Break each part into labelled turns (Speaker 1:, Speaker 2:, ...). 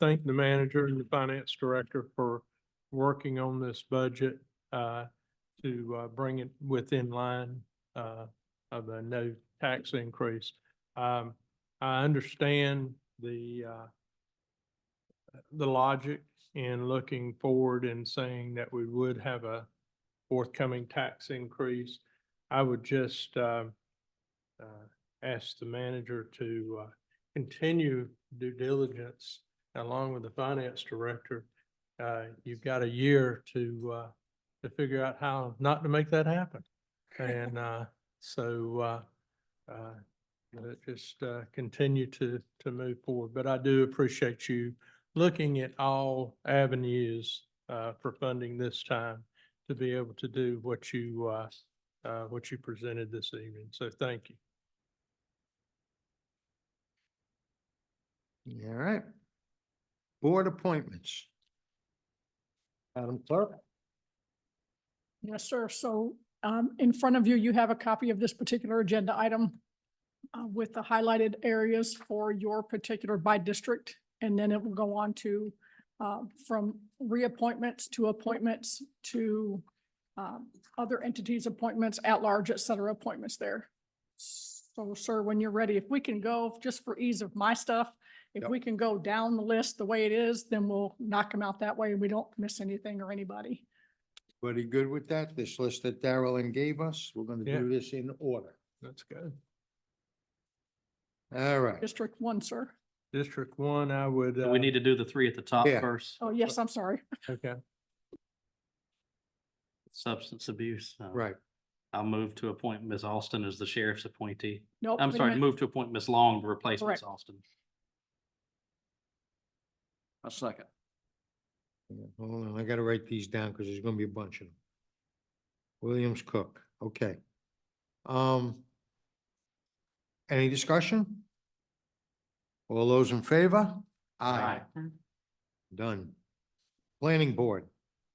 Speaker 1: thank the manager and the finance director for working on this budget uh, to uh, bring it within line uh, of the no tax increase. Um, I understand the uh, the logic in looking forward and saying that we would have a forthcoming tax increase. I would just uh, uh, ask the manager to uh, continue due diligence along with the finance director. Uh, you've got a year to, uh, to figure out how not to make that happen. And, uh, so, uh, uh, let just, uh, continue to, to move forward. But I do appreciate you looking at all avenues, uh, for funding this time to be able to do what you, uh, uh, what you presented this evening. So thank you.
Speaker 2: All right. Board appointments. Madam Clerk?
Speaker 3: Yes, sir. So um, in front of you, you have a copy of this particular agenda item uh, with the highlighted areas for your particular by district, and then it will go on to uh, from reappointments to appointments to um, other entities' appointments, at-large, et cetera, appointments there. So, sir, when you're ready, if we can go, just for ease of my stuff, if
Speaker 2: Yep.
Speaker 3: we can go down the list the way it is, then we'll knock them out that way, and we don't miss anything or anybody.
Speaker 2: Buddy, good with that? This list that Darrellin gave us, we're gonna do this in order.
Speaker 1: That's good.
Speaker 2: All right.
Speaker 3: District one, sir.
Speaker 1: District one, I would.
Speaker 4: Do We
Speaker 1: uh,
Speaker 4: need to do the three at the top
Speaker 2: Yeah.
Speaker 4: first,
Speaker 3: Oh, yes, I'm sorry.
Speaker 1: Okay,
Speaker 4: substance abuse. Um,
Speaker 2: Right,
Speaker 4: I'll move to appoint Ms. Austin as the sheriff's appointee.
Speaker 3: Nope.
Speaker 4: I'm
Speaker 3: Oh, wait a
Speaker 4: sorry,
Speaker 3: minute.
Speaker 4: move to appoint Ms. Long to replace Ms.
Speaker 3: Correct.
Speaker 4: Austin. A second.
Speaker 2: Yeah, hold on, I gotta write these down because there's gonna be a bunch of them. Williams Cook, okay. Um. Any discussion? All those in favor? Done. Planning Board,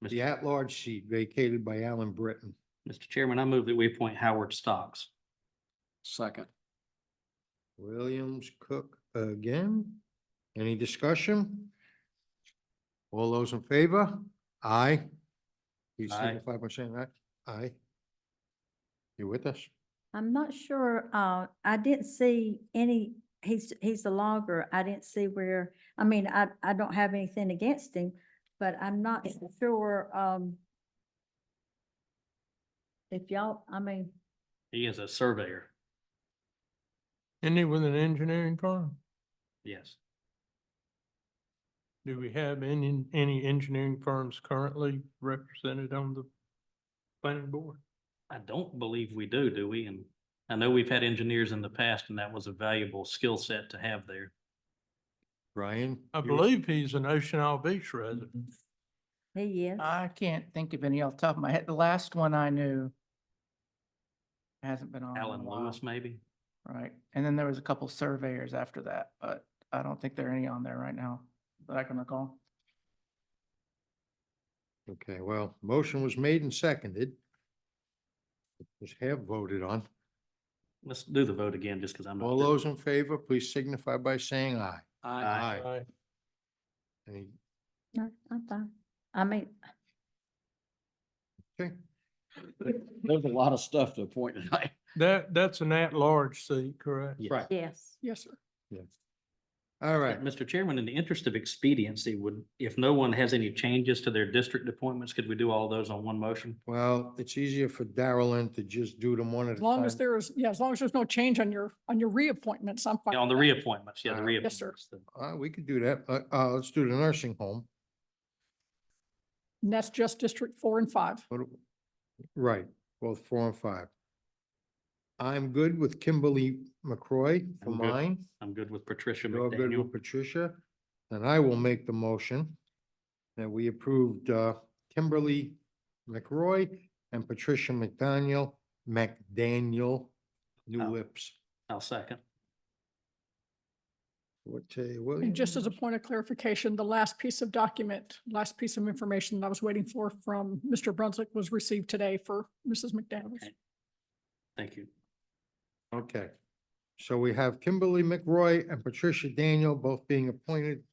Speaker 2: the
Speaker 4: Mr.
Speaker 2: at-large seat vacated by Alan Britton.
Speaker 4: Mr. Chairman, I move that we appoint Howard Stocks. Second.
Speaker 2: Williams Cook again. Any discussion? All those in favor? Aye. Please
Speaker 4: Aye.
Speaker 2: signify by saying aye. Aye. You with us?
Speaker 5: I'm not sure, uh, I didn't see any, he's, he's the logger. I didn't see where, I mean, I, I don't have anything against him, but I'm not sure, um, if y'all, I mean,
Speaker 4: He is a surveyor,
Speaker 1: Isn't it with an engineering firm?
Speaker 4: yes.
Speaker 1: Do we have any, any engineering firms currently represented on the planning board?
Speaker 4: I don't believe we do, do we? And I know we've had engineers in the past and that was a valuable skill set to have there.
Speaker 2: Brian?
Speaker 1: I
Speaker 2: you-
Speaker 1: believe he's an Ocean Isle Beach resident.
Speaker 5: he is.
Speaker 6: I can't think of any off the top of my head. The last one I knew hasn't been on. in a
Speaker 4: Alan
Speaker 2: Uh,
Speaker 6: while,
Speaker 4: Lewis, maybe?
Speaker 6: Right. And then there was a couple surveyors after that, but I don't think there are any on there right now that I can recall.
Speaker 2: Okay, well, motion was made and seconded. It was half voted on.
Speaker 4: Let's do the vote again, just because I'm. not
Speaker 2: All
Speaker 4: sure.
Speaker 2: those in favor, please signify by saying aye.
Speaker 4: Aye.
Speaker 1: Aye.
Speaker 2: Any,
Speaker 5: No, I'm fine. I mean,
Speaker 2: okay,
Speaker 7: There's a lot of stuff to appoint tonight.
Speaker 1: That, that's an at-large seat, correct?
Speaker 4: Yes.
Speaker 2: right,
Speaker 5: yes.
Speaker 3: Yes, sir.
Speaker 2: all
Speaker 4: Uh,
Speaker 2: right.
Speaker 4: Mr. Chairman, in the interest of expediency, would, if no one has any changes to their district appointments, could we do all those on one motion?
Speaker 2: Well, it's easier for Darrellin to just do them one at a
Speaker 3: As
Speaker 2: time.
Speaker 3: long as there is, yeah, as long as there's no change on your, on your reappointments, I'm fine.
Speaker 4: Yeah, On the
Speaker 3: with that.
Speaker 4: reappointments, yeah, the
Speaker 2: Uh,
Speaker 3: Yes, sir.
Speaker 4: reappointments. the-
Speaker 2: Uh, we could do that. Uh, uh, let's do the nursing home.
Speaker 3: And that's just District Four and Five.
Speaker 2: What do- Right, both four and five. I'm good with Kimberly McCroy for
Speaker 4: I'm good.
Speaker 2: mine.
Speaker 4: I'm good with Patricia
Speaker 2: You're good with
Speaker 4: McDaniel.
Speaker 2: Patricia. And I will make the motion that we approved, uh, Kimberly McCroy and Patricia McDaniel, McDaniel, New
Speaker 4: Oh.
Speaker 2: Lips.
Speaker 4: I'll second.
Speaker 2: Forte
Speaker 3: And just as a
Speaker 2: Williams.
Speaker 3: point of clarification, the last piece of document, last piece of information that I was waiting for from Mr. Brunswick was received today for Mrs. McDaniel.
Speaker 4: Okay. Thank you.
Speaker 2: Okay. So we have Kimberly McRoy and Patricia Daniel both being appointed